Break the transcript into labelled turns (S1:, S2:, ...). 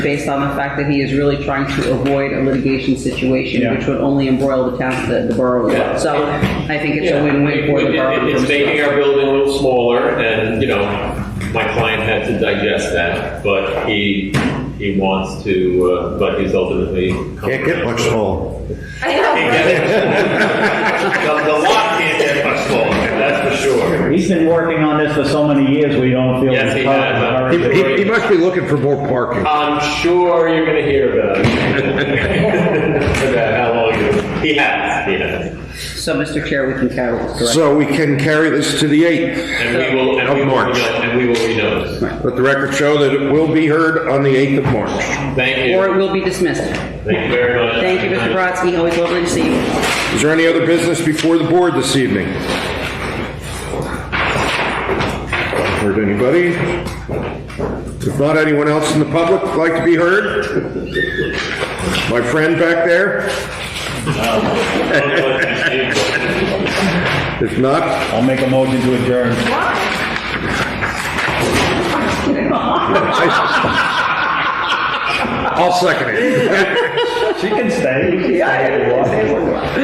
S1: based on the fact that he is really trying to avoid a litigation situation,
S2: Yeah.
S1: which would only embroil the town, the the borough as well.
S3: Yeah.
S1: So I think it's a
S3: Yeah,
S1: win-win for the
S3: it- it-
S1: borough.
S3: It's making our building a little smaller, and, you know, my client had to digest that, but he, he wants to, uh, but he's ultimately.
S4: Can't get much smaller.
S3: Can't get much- The the lot can't get much smaller, that's for sure.
S2: He's been working on this for so many years, we don't feel.
S3: Yes, he has.
S2: All
S4: He,
S2: right.
S4: he- he must be looking for more parking.
S3: I'm sure you're gonna hear about it. About how long you, he has, he has.
S1: So, Mr. Chair, we can carry this direction.
S4: So we can carry this to the 8th.
S3: And we will, and
S4: Of
S3: we will,
S4: March.
S3: reno- and we will renotice.
S4: Let the record show that it will be heard on the 8th of March.
S3: Thank
S1: Or it
S3: you,
S1: will be dismissed.
S3: thank you very much.
S1: Thank you, Mr. Brodsky, always lovely to see you.
S4: Is there any other business before the board this evening? Heard anybody? If not, anyone else in the public would like to be heard? My friend back there? If not,
S2: I'll make a motion to adjourn.
S4: I'll second it.
S2: She can stay. She can stay.